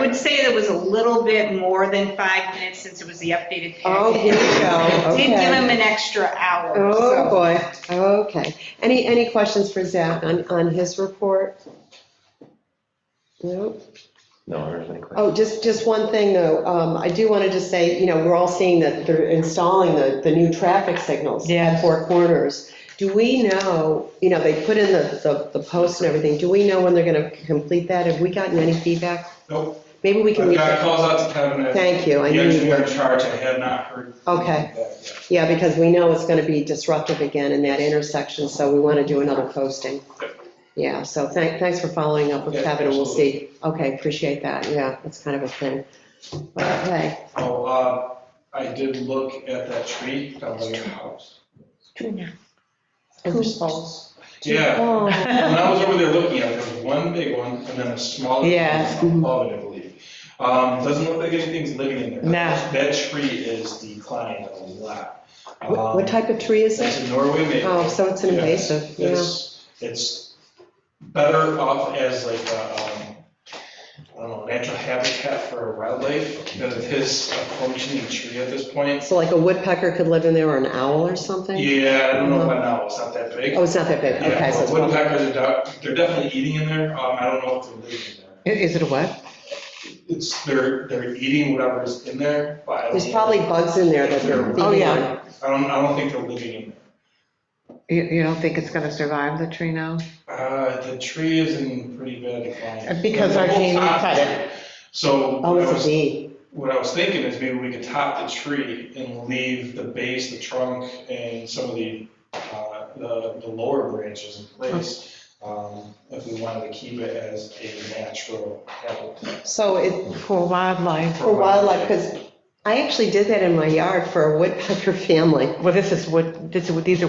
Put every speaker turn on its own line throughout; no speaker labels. would say there was a little bit more than five minutes since it was the updated
Oh,
packet.
here we go,
Did give
okay.
him an extra hour,
Oh,
so.
boy, okay. Any, any questions for Zach on, on his report? Nope.
No, there's any question.
Oh, just, just one thing, though. Um, I do want to just say, you know, we're all seeing that they're installing the, the new traffic signals at Four Corners. Do we know, you know, they put in the, the the posts and everything, do we know when they're going to complete that? Have we gotten any feedback?
Nope,
Maybe we can
I've
reach
got
out.
calls out to Kevin, and
Thank you.
the
I knew you
engineer in
would.
charge, I have not heard
Okay,
that yet.
yeah, because we know it's going to be disruptive again in that intersection, so we want to do another posting. Yeah, so thank- thanks for following up with
Yeah,
Kevin, and we'll see. Okay, appreciate that. Yeah, that's kind of a thing. Okay.
Oh, uh, I did look at that tree down by your house.
Who's
Yeah, when
Oh,
I was over there looking at it, there was one big one, and then a smaller
Yeah.
one above it, I believe. Um, doesn't look like anything's living in there.
No.
That tree is declining a lot. Um,
What what type of tree is
It's
it?
a Norway maple.
Oh, so it's an
Yeah.
invasive, yeah.
It's, it's better off as like a, um, I don't know, natural habitat for wildlife than it is a functioning tree at this point.
So like a woodpecker could live in there or an owl or something?
Yeah, I don't know about now, it's not that big.
Oh, it's not that big, okay, so
Yeah,
it's probably,
woodpeckers are, doc- they're definitely eating in there, um, I don't know if they're living in there.
Is it a what?
It's, they're, they're eating whatever's in there, but I don't.
there's
know.
probably bugs in there that they're
Oh,
feeding
yeah.
on.
I don't, I don't think they're living in
You, you don't think it's gonna survive the tree now?
there. Uh, the tree is in pretty bad decline.
Uh, Because our
The whole
team
top
cut it.
there. So.
Oh,
I
it's
was-
a bee.
What I was thinking is maybe we could top the tree and leave the base, the trunk, and some of the, uh, the the lower branches in place, um, if we wanted to keep it as a natural habitat.
So it,
For wildlife.
for wildlife, because I actually did that in my yard for a woodpecker family.
Well, this is wood, this is, these are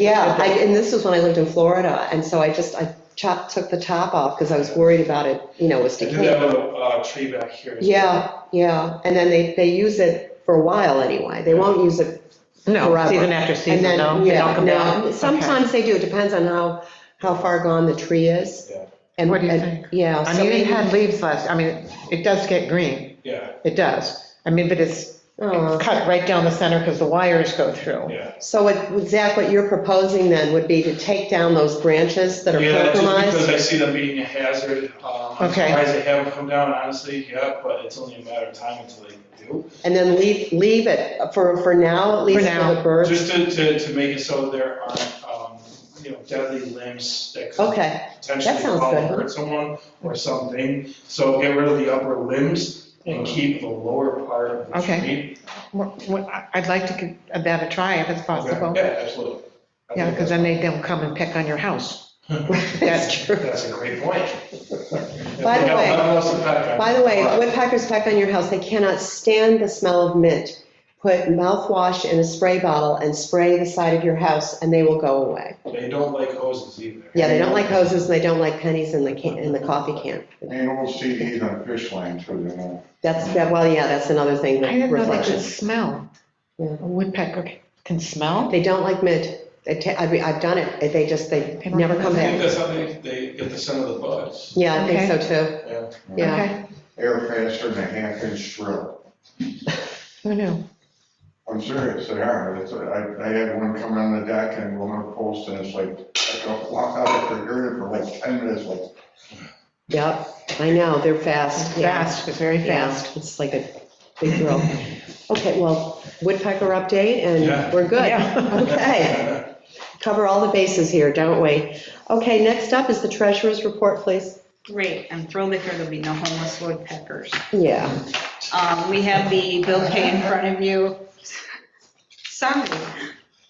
Yeah, I- and this was when I lived in Florida, and so I just, I chopped, took the top off because I was worried about it, you know, was
I do
decaying.
have a uh, tree back here. as well.
Yeah, yeah, and then they, they use it for a while anyway, they won't use it,
No,
Forever.
season after
and
season, no,
then,
they
yeah,
don't come down.
no,
Okay.
sometimes they do, it depends on how, how far gone the tree is.
Yeah.
And-
What do you
and-
think?
Yeah.
I
so
mean, it
maybe-
had leaves last, I mean, it does get green,
Yeah,
it does. I mean, but it's
Oh.
it's cut right down the center because the wires go through.
yeah.
So what, Zach, what you're proposing then would be to take down those branches that are
Yeah, just because
compromised?
I see them being a hazard. um, I'm
Okay.
surprised they haven't come down, honestly, yeah, but it's only a matter of time until they do.
And then leave, leave it for, for now, at least for the
now.
birds?
Just to, to, to make it so there aren't, um, you know, deadly limbs that could
Okay,
potentially
That sounds
fall and
good.
hurt someone or something. So get rid of the upper limbs and keep the lower part of the
Okay.
tree.
Well, well, I- I'd like to give that a try if it's possible.
Yeah, absolutely. I
Yeah,
think
because then they don't come and pick on your house.
that's true.
That's a great point.
By the way- By the way,
what?
woodpeckers peck on your house, they cannot stand the smell of mint. Put mouthwash in a spray bottle and spray the side of your house, and they will go away.
They don't like hoses either.
Yeah, they don't like hoses, and they don't like pennies in the can, in the coffee can.
And you won't see heat on fish line too, you know.
That's, that. well, yeah, that's another thing,
I didn't know
that
they could
reflection.
smell. A
Yeah.
woodpecker can smell?
They don't like mint. They ta- I mean, I've done it, they just, they
They don't
never
like
come
I think
mint.
back.
that's how they, they get the scent of the bugs.
Yeah, I think so too,
Yeah.
yeah.
Okay,
Air faster than a half inch drill.
who knew?
I'm serious, they are. It's- I, I had one come on the deck and one of the posts and it's like, I go walk out after hearing it for like ten minutes, like,
Yep, I know, they're fast. yeah.
Fast, it's very fast.
fast, it's like a big drill. Okay, well, woodpecker update,
Yeah.
and we're good.
Yeah.
Okay, cover all the bases here, don't we? Okay, next up is the treasurer's report, please.
Great, I'm thrilled to hear there'll be no homeless woodpeckers.
Yeah.
Um, We have the bill pay in front of you. Sorry,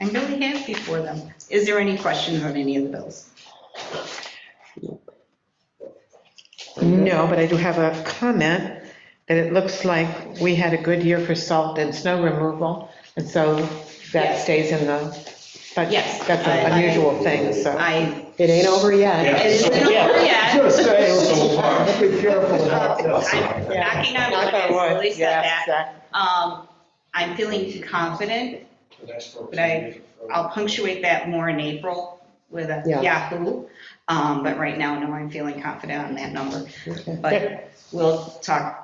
I'm really happy for them. Is there any questions on any of the bills?
No, but I do have a comment that it looks like we had a good year for salt and snow removal, and so that
Yes.
stays in the, but
Yes,
that's
I-
an
I-
unusual thing, so.
I,
It ain't over
Yeah.
yet.
is it over yet?
Oh, Just saying,
So far.
be careful about this.
uh, I'm Knocking on wood,
Knock
I
on wood.
slowly
Yeah,
said that.
exact-
Um, I'm feeling confident
The next
But I-
one.
I'll punctuate that more in April with a
Yeah.
Yahoo. Um, But right now, no, I'm feeling confident on that number.
Okay.
But we'll talk